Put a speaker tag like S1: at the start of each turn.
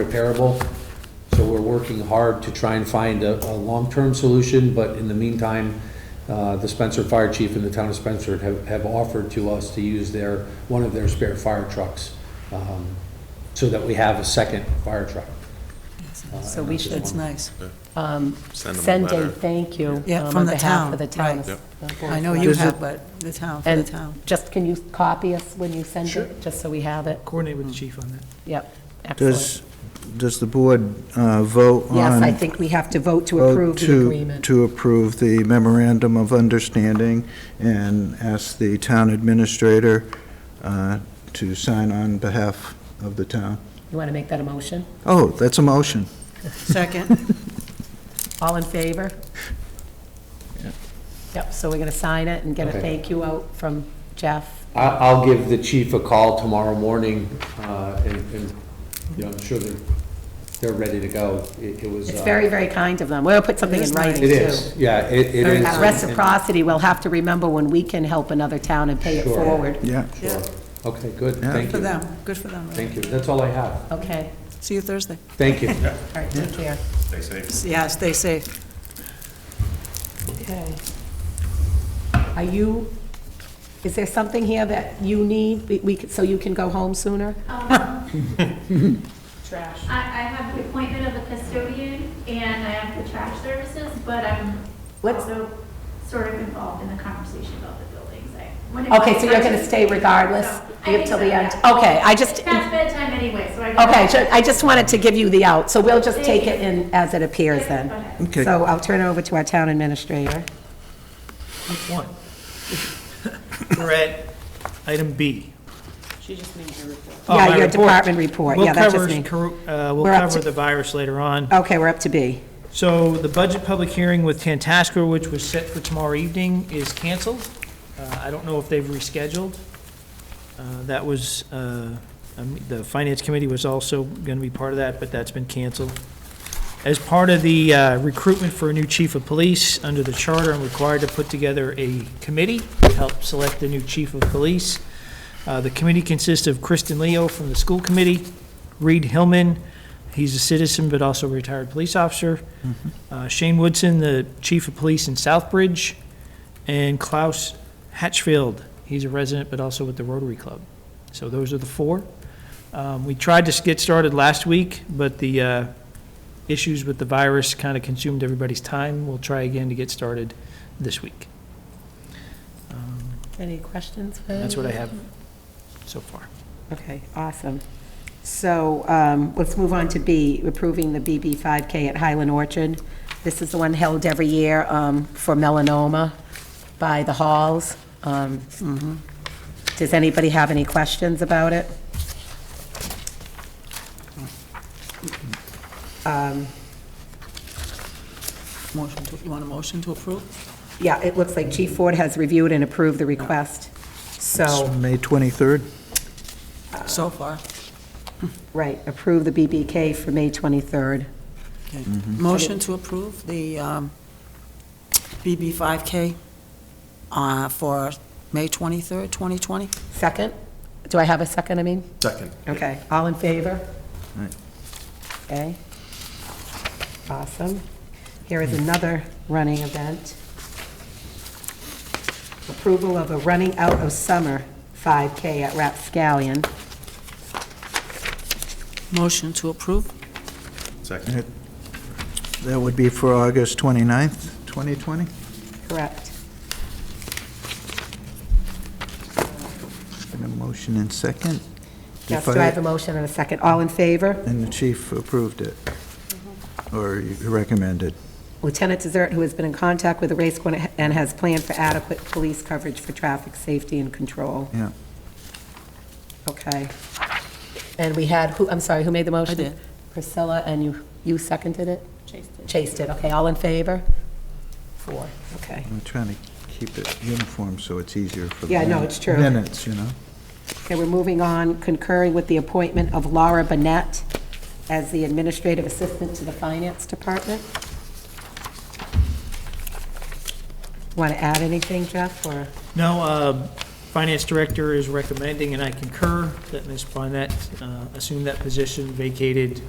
S1: unrepairable. So we're working hard to try and find a, a long-term solution, but in the meantime, uh, the Spencer Fire Chief and the town of Spencer have, have offered to us to use their, one of their spare fire trucks, um, so that we have a second fire truck.
S2: So we should,
S3: That's nice.
S2: um,
S4: Send them a
S2: send a
S4: letter.
S2: thank you.
S3: Yeah,
S2: um,
S3: from the
S2: On behalf of the
S3: town,
S2: town.
S3: right.
S2: of-
S3: I know you have, but the town, for the
S2: And
S3: town.
S2: just, can you copy us when you send
S5: Sure.
S2: it, just so we have it?
S5: Coordinate with the chief on that.
S2: Yep, excellent.
S6: Does, does the board uh, vote on?
S2: Yes, I think we have to vote to
S6: vote
S2: approve the
S6: to-
S2: agreement.
S6: To approve the memorandum of understanding and ask the town administrator uh, to sign on behalf of the town?
S2: You want to make that a motion?
S6: Oh, that's a motion.
S3: Second,
S2: All in favor? Yep, so we're going to sign it and get a
S1: Okay.
S2: thank you out from Jeff.
S1: I, I'll give the chief a call tomorrow morning, uh, and, and, you know, I'm sure they're, they're ready to go. It it was.
S2: It's
S1: uh,
S2: very, very kind of them. We'll put something in
S3: is
S2: writing, too.
S1: It is, yeah, it, it is.
S2: Out of Reciprocity, we'll have to remember when we can help another town and pay it
S1: Sure.
S2: forward.
S6: Yeah.
S1: Sure. Okay, good,
S6: Yeah.
S1: thank
S3: for
S1: you,
S3: them, good for them.
S1: thank you, that's all I have,
S2: Okay,
S3: See you Thursday.
S1: thank you.
S2: all right, take care.
S4: Stay safe.
S3: Yeah, stay safe.
S2: Okay. Are you, is there something here that you need, we- we, could- so you can go home sooner? Trash.
S7: I, I have the appointment of a custodian and I have the trash services, but I'm
S2: Let's-
S7: also sort of involved in the conversation about the buildings. I- when it-
S2: Okay, so you're going to stay regardless?
S7: No, I
S2: You have
S7: think
S2: till
S7: so,
S2: the end?
S7: yeah.
S2: Okay, I
S7: It's
S2: just,
S7: past bedtime anyway, so I. go-
S2: okay, ju- I just wanted to give you the out, so we'll just
S7: Thank
S2: take it in as it appears then.
S7: Okay.
S6: Okay.
S2: So I'll turn it over to our town administrator.
S5: One. We're at item B. Oh,
S2: Yeah,
S5: my
S2: your
S5: report.
S2: department report, yeah, that's just me.
S5: We'll cover, uh, we'll
S2: We're up
S5: cover
S2: to-
S5: the virus later on.
S2: Okay, we're up to B.
S5: So the budget public hearing with Tantascor, which was set for tomorrow evening, is canceled. Uh, I don't know if they've rescheduled. Uh, That was, uh, um, the Finance Committee was also going to be part of that, but that's been canceled. As part of the uh, recruitment for a new chief of police, under the charter, I'm required to put together a committee to help select the new chief of police. Uh, The committee consists of Kristen Leo from the school committee, Reed Hillman, he's a citizen but also a retired police officer, uh, Shane Woodson, the chief of police in Southbridge, and Klaus Hatchfield. He's a resident, but also with the Rotary Club. So those are the four. Um, We tried to get started last week, but the uh, issues with the virus kind of consumed everybody's time. We'll try again to get started this week. Um,
S2: Any questions? for
S5: That's what I
S2: you?
S5: have so far.
S2: Okay, awesome. So um, let's move on to B, approving the BB 5K at Highland Orchard. This is the one held every year um, for melanoma by the halls. Um, Does anybody have any questions about it?
S3: Motion to, you want a motion to approve?
S2: Yeah, it looks like Chief Ford has reviewed and approved the request.
S6: It's
S2: So,
S6: May 23rd?
S3: So far.
S2: right, approve the BBK for May 23rd.
S3: Okay. Motion to approve the um, BB 5K uh, for May 23rd, 2020?
S2: Second? Do I have a second, I mean?
S4: Second.
S2: Okay, all in favor?
S6: Right.
S2: Okay. Awesome. Here is another running event. Approval of a running out of summer 5K at Rapscallion.
S3: Motion to approve?
S4: Second.
S6: That would be for August 29th, 2020?
S2: Correct.
S6: And a motion and second?
S2: Yes,
S6: If
S2: do I have a motion and a second? All in favor?
S6: And the chief approved it,
S2: Mm-hmm.
S6: or recommended.
S2: Lieutenant Dessert, who has been in contact with the race corps and has planned for adequate police coverage for traffic safety and control.
S6: Yeah.
S2: Okay. And we had, who, I'm sorry, who made the motion?
S3: did.
S2: Priscilla, and you, you seconded it? Chase did. Chase did, okay, all in favor? Four, okay.
S6: I'm trying to keep it uniform so it's easier for the
S2: Yeah, no, it's true.
S6: minutes, you know?
S2: Okay, we're moving on, concurring with the appointment of Laura Bennett as the administrative assistant to the finance department. Want to add anything, Jeff, or?
S5: No, um, Finance Director is recommending, and I concur, that Ms. Barnett uh, assume that position vacated